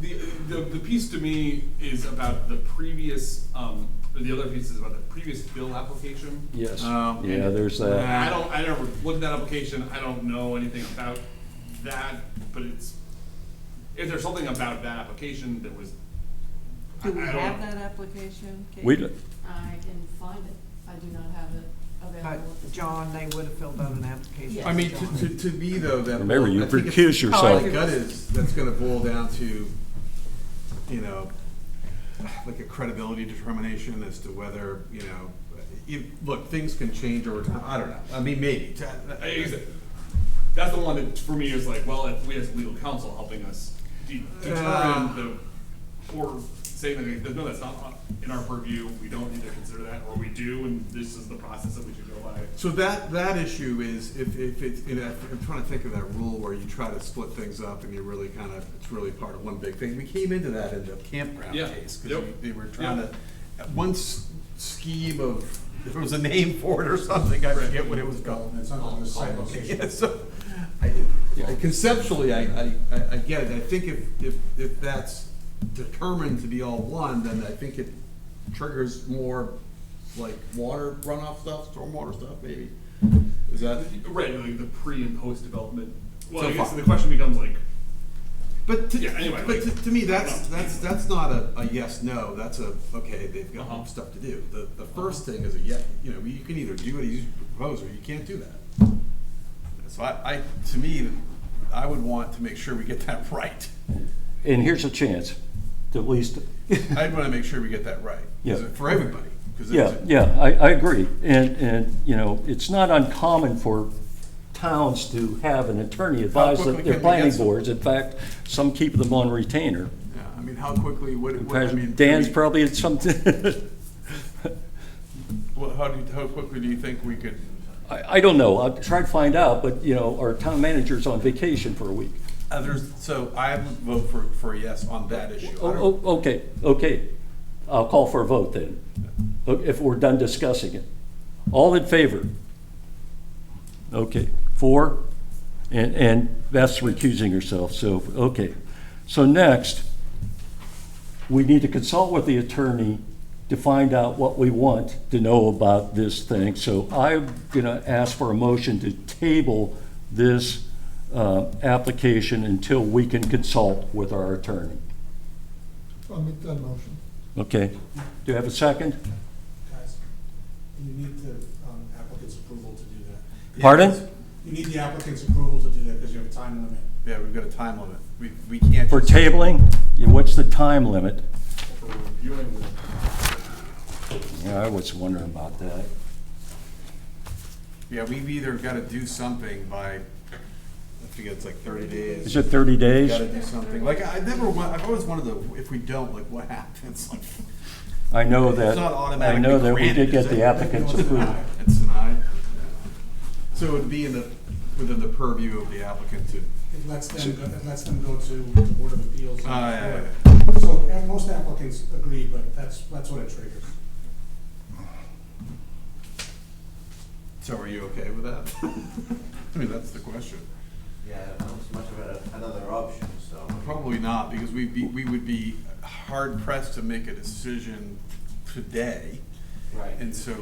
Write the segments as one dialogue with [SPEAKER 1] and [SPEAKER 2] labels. [SPEAKER 1] the, the piece to me is about the previous, um, or the other piece is about the previous bill application.
[SPEAKER 2] Yes.
[SPEAKER 1] Um,
[SPEAKER 2] Yeah,
[SPEAKER 1] and
[SPEAKER 2] there's uh, that.
[SPEAKER 1] I don't, I never looked at that application, I don't know anything about that, but it's, if there's something about that application that was, I, I
[SPEAKER 3] Do
[SPEAKER 1] don't.
[SPEAKER 3] we have that application? Kate?
[SPEAKER 2] We, d-
[SPEAKER 4] I can find it. I do not have it
[SPEAKER 3] But
[SPEAKER 4] available.
[SPEAKER 3] John, they would have filled out an application.
[SPEAKER 4] Yes.
[SPEAKER 5] I mean, to, to, to me though, that.
[SPEAKER 2] Remember, you
[SPEAKER 5] I think it's-
[SPEAKER 2] recuse yourself.
[SPEAKER 5] My gut is, that's gonna boil down to, you know, like a credibility determination as to whether, you know, if, look, things can change over time, I don't know, I mean, maybe. To-
[SPEAKER 1] I- I- That's the one that for me is like, well, if we have legal counsel helping us de-
[SPEAKER 5] Ah.
[SPEAKER 1] determine the, or saying that, no, that's not in our purview, we don't need to consider that, or we do, and this is the process that we should go by.
[SPEAKER 5] So that, that issue is, if, if it's, you know, I'm trying to think of that rule where you try to split things up and you're really kind of, it's really part of one big thing. We came into that in the campground
[SPEAKER 1] Yeah.
[SPEAKER 5] case, because
[SPEAKER 1] Yep.
[SPEAKER 5] they were trying to, one s- scheme of, there was a name for it or something, I forget what it was called.
[SPEAKER 6] It's under the site location.
[SPEAKER 5] Yeah, so, I, I- conceptually, I, I, I- I get it, I think if, if, if that's determined to be all one, then I think it triggers more like water runoff stuff, stormwater stuff, maybe. Is that,
[SPEAKER 1] Uh, Right, like the pre and post development, well,
[SPEAKER 5] So
[SPEAKER 1] I guess
[SPEAKER 5] far.
[SPEAKER 1] the question becomes like,
[SPEAKER 5] but to,
[SPEAKER 1] Yeah, anyway,
[SPEAKER 5] but
[SPEAKER 1] like-
[SPEAKER 5] to, to me, that's,
[SPEAKER 1] No.
[SPEAKER 5] that's, that's not a, a yes, no, that's a, okay, they've
[SPEAKER 1] Uh-huh.
[SPEAKER 5] got stuff to do. The, the first thing is a yes, you know, you can either do what you propose or you can't do that. So I, I, to me, I would want to make sure we get that right.
[SPEAKER 2] and here's a chance, to at least,
[SPEAKER 5] I'd want to make sure we get that right. 'cause
[SPEAKER 2] Yeah.
[SPEAKER 5] For everybody. 'cause
[SPEAKER 2] yeah,
[SPEAKER 5] it's-
[SPEAKER 2] yeah, I, I agree. And, and, you know, it's not uncommon for towns to have an attorney advise
[SPEAKER 5] quickly
[SPEAKER 2] that their
[SPEAKER 5] can we get
[SPEAKER 2] planning
[SPEAKER 5] some?
[SPEAKER 2] boards. In fact, some keep them on retainer.
[SPEAKER 5] Yeah, I mean, how quickly, what,
[SPEAKER 2] In
[SPEAKER 5] what, I mean.
[SPEAKER 2] fact, Dan's
[SPEAKER 5] we-
[SPEAKER 2] probably at some,
[SPEAKER 5] Well, how do, you- how quickly do you think we could,
[SPEAKER 2] I, I don't know, I'll try to find out, but, you know, our town manager's on vacation for a week.
[SPEAKER 5] others, so I would vote for, for a yes on that issue. I don't-
[SPEAKER 2] Oh, oh, okay, okay. I'll call for a vote then, o- if we're done discussing it. All in favor? Okay, four, and, and Beth's recusing herself, so, okay. So next, we need to consult with the attorney to find out what we want to know about this thing. So I'm gonna ask for a motion to table this, uh, application until we can consult with our attorney.
[SPEAKER 6] I'll make that motion.
[SPEAKER 2] Okay, do you have a second?
[SPEAKER 6] Guys, you need the um, applicant's approval to do that.
[SPEAKER 2] Pardon?
[SPEAKER 6] You need the applicant's approval to do that because you have a time limit.
[SPEAKER 5] Yeah, we've got a time limit. We, we can't.
[SPEAKER 2] For
[SPEAKER 5] just-
[SPEAKER 2] tabling, yeah, what's the time limit?
[SPEAKER 1] for reviewing the
[SPEAKER 2] Yeah, I was wondering about that.
[SPEAKER 5] Yeah, we've either got to do something by, I forget, it's like thirty days.
[SPEAKER 2] Is it 30 days?
[SPEAKER 5] Got to do something. Like, I never, wa- I've always wanted to, if we don't, like, what happens? Like,
[SPEAKER 2] I know that.
[SPEAKER 5] It's not
[SPEAKER 2] I
[SPEAKER 5] automatically
[SPEAKER 2] know that we
[SPEAKER 5] granted,
[SPEAKER 2] did
[SPEAKER 5] is
[SPEAKER 2] get the
[SPEAKER 5] it?
[SPEAKER 2] applicant's
[SPEAKER 5] It's denied.
[SPEAKER 2] approval.
[SPEAKER 5] It's denied. So it would be in the, within the purview of the applicant to,
[SPEAKER 6] It lets them, go- it lets them go to the Board of Appeals. and-
[SPEAKER 5] Ah, yeah, yeah,
[SPEAKER 6] So, and most applicants agree, but that's, that's what it triggers.
[SPEAKER 5] so are you okay with that? I mean, that's the question.
[SPEAKER 7] Yeah, not much of a- another option, so.
[SPEAKER 5] Probably not, because we, we would be hard pressed to make a decision today.
[SPEAKER 7] Right.
[SPEAKER 5] And so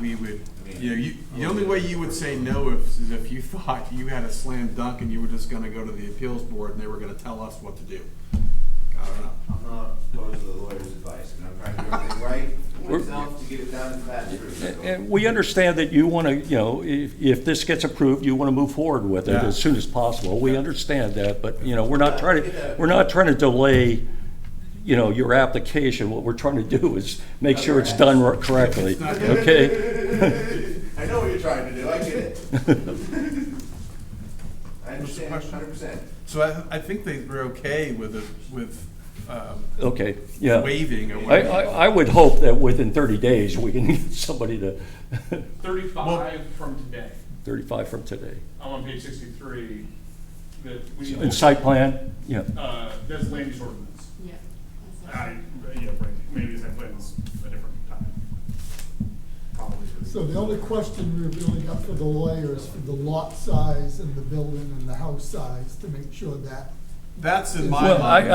[SPEAKER 5] we would, you know, you, the only way you would say no is, is if you thought you had a slam dunk and you were just gonna go to the appeals board and they were gonna tell us what to do. I don't know.
[SPEAKER 7] I'm not opposed to the lawyer's advice, and I'm trying to do everything right for
[SPEAKER 2] We're-
[SPEAKER 7] myself to get it down as fast as possible.
[SPEAKER 2] And Eh, we understand that you want to, you know, if, if this gets approved, you want to move forward with it
[SPEAKER 5] Yeah.
[SPEAKER 2] as soon as possible. We understand that, but, you know, we're not trying to, we're not trying to delay, you know, your application. What we're trying to do is make sure it's done correctly, okay?
[SPEAKER 7] I know what you're trying to do, I get it. I understand
[SPEAKER 5] question?
[SPEAKER 7] hundred percent.
[SPEAKER 5] So I, I think they were okay with, the- with, um,
[SPEAKER 2] Okay, yeah.
[SPEAKER 5] waiving or
[SPEAKER 2] I,
[SPEAKER 5] whatever.
[SPEAKER 2] I, I would hope that within thirty days, we can get somebody to,
[SPEAKER 1] Thirty-five from today,
[SPEAKER 2] thirty-five from today.
[SPEAKER 1] I'm on page sixty-three, that we
[SPEAKER 2] And
[SPEAKER 1] need,
[SPEAKER 2] site plan, yeah,
[SPEAKER 1] uh, that's land use ordinance.
[SPEAKER 4] Yeah. that's
[SPEAKER 1] I,
[SPEAKER 4] it.
[SPEAKER 1] yeah, right, maybe that plans a different time. Probably.
[SPEAKER 6] So the only question we're really up for the lawyer is for the lot size and the building and the house size to make sure that
[SPEAKER 5] That's in my
[SPEAKER 2] Well, I-
[SPEAKER 5] mind.